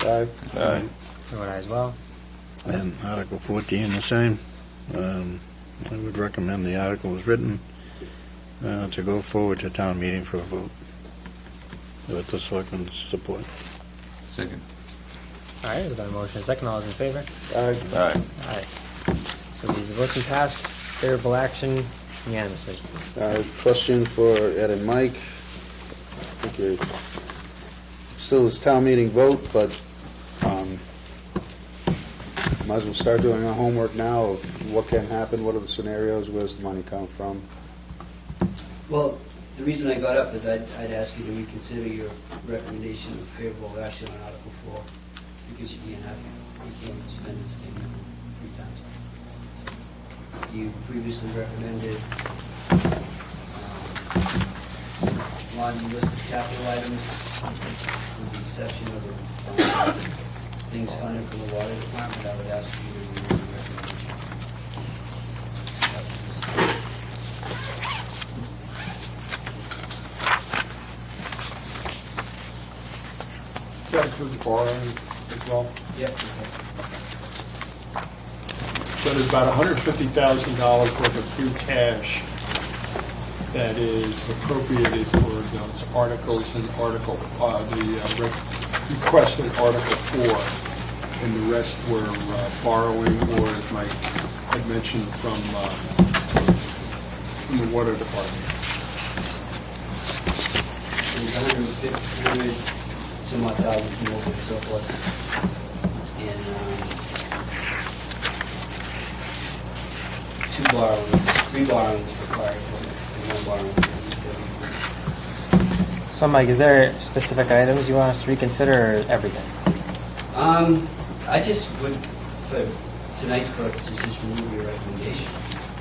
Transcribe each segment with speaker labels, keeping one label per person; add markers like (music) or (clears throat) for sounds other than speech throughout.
Speaker 1: Aye.
Speaker 2: Aye.
Speaker 3: Vote aye as well.
Speaker 4: And Article 14, the same. Um, I would recommend the article as written uh, to go forward to town meeting for a vote with the selectmen's support.
Speaker 2: Second.
Speaker 3: All right, there's been a motion and a second. All those in favor?
Speaker 1: Aye.
Speaker 2: Aye.
Speaker 3: Aye. So these are looking passed, favorable action unanimously.
Speaker 1: Uh, Question for Ed and Mike. Okay. Still is town meeting vote, but um, might as well start doing our homework now of what can happen, what are the scenarios, where's the money come from?
Speaker 5: Well, the reason I got up is I'd, I'd ask you to reconsider your recommendation of favorable action on Article Four, because you can't have, you can't spend this thing three times. You previously recommended um, one list of capital items, with the exception of um, things funded from the water department, I would ask you to remove the recommendation. That was-
Speaker 1: Does that include borrowing as well?
Speaker 5: Yep.
Speaker 6: So there's about $150,000 worth of free cash that is appropriated for those articles and article, uh, the uh, re- request in Article 4, and the rest were uh, borrowing, or as Mike had mentioned, from, uh, from the water department.
Speaker 5: There's 150, some odd thousand from open surplus. And um, two borrowings, three borrowings for fire equipment, and one borrowing for
Speaker 3: So Mike, is there specific items you want us to reconsider or everything?
Speaker 5: DPW. Um, I just would, for tonight's purposes, just remove your recommendation.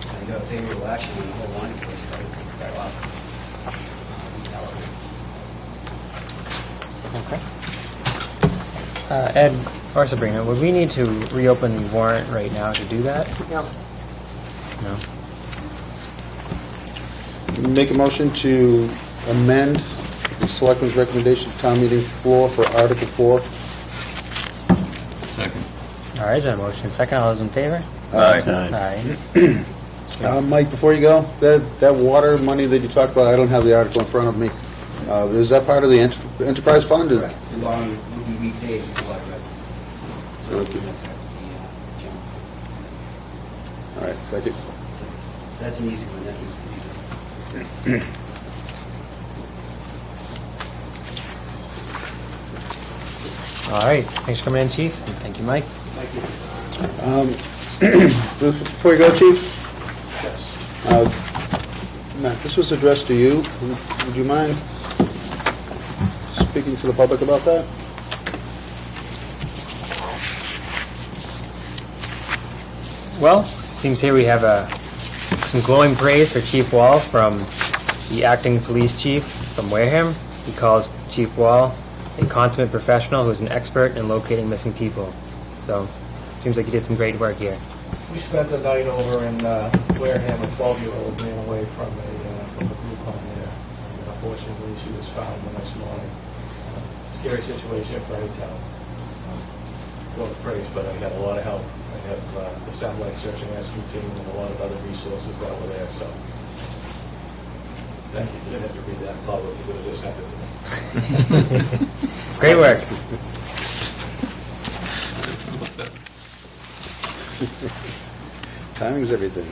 Speaker 5: I got favorable action on the whole line, of course, I would pick that up. Um, that would-
Speaker 3: Okay. Uh, Ed or Sabrina, would we need to reopen the warrant right now to do that? No. No?
Speaker 1: Make a motion to amend the selectmen's recommendation to town meeting floor for Article 4.
Speaker 2: Second.
Speaker 3: All right, then motion and second. All those in favor?
Speaker 2: Aye.
Speaker 4: Aye.
Speaker 3: Aye.
Speaker 1: Uh, Mike, before you go, that, that water money that you talked about, I don't have the article in front of me. Uh, Is that part of the enter- enterprise fund? or-
Speaker 5: Correct. The bond would be repaid in July, right? So it would affect the, uh, general
Speaker 1: All right, second.
Speaker 5: fund. So That's an easy one, that is the easy one.
Speaker 3: All right, thanks for coming in, chief, and thank you, Mike.
Speaker 5: Thank you.
Speaker 1: Before you go, Chief? Yes. Matt, this was addressed to you. Would- Would you mind speaking to the public about that?
Speaker 3: Well, seems here we have uh, some glowing praise for Chief Wall from the acting police chief from Wareham. He calls Chief Wall a consummate professional who's an expert in locating missing people. So, seems like you did some great work here.
Speaker 7: We spent the night over in uh, Wareham, a 12-year-old ran away from a, uh, from a group home there. And Unfortunately, she was found the next morning. Uh, Scary situation for any town. Um, Well, praise, but I got a lot of help. I have uh, the Sound Lake Search and Rescue Team and a lot of other resources that were there, so. Thank you, you didn't have to read that publicly, but it just happened to me.
Speaker 3: Great work.
Speaker 1: Timing's everything.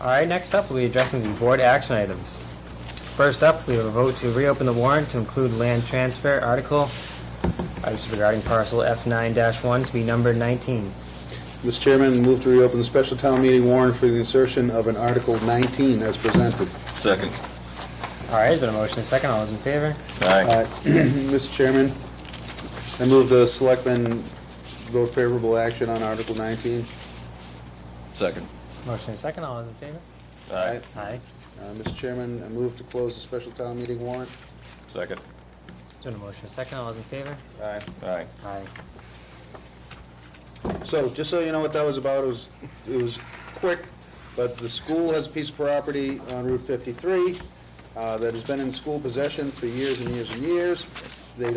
Speaker 3: All right, next up, we'll be addressing the board action items. First up, we have a vote to reopen the warrant to include land transfer article uh, this is regarding parcel F9-1 to be numbered 19.
Speaker 1: Mr. Chairman, move to reopen the special town meeting warrant for the insertion of an Article 19 as presented.
Speaker 2: Second.
Speaker 3: All right, there's been a motion and a second. All those in favor?
Speaker 2: Aye.
Speaker 1: Uh, (clears throat) Mr. Chairman, I move the selectmen vote favorable action on Article 19.
Speaker 2: Second.
Speaker 3: Motion and a second. All those in favor?
Speaker 2: Aye.
Speaker 3: Aye.
Speaker 1: Uh, Mr. Chairman, I move to close the special town meeting warrant.
Speaker 2: Second.
Speaker 3: There's been a motion and a second. All those in favor?
Speaker 1: Aye.
Speaker 2: Aye.
Speaker 3: Aye.
Speaker 1: So, just so you know what that was about, it was, it was quick, but the school has a piece of property on Route 53 uh, that has been in school possession for years and years and years.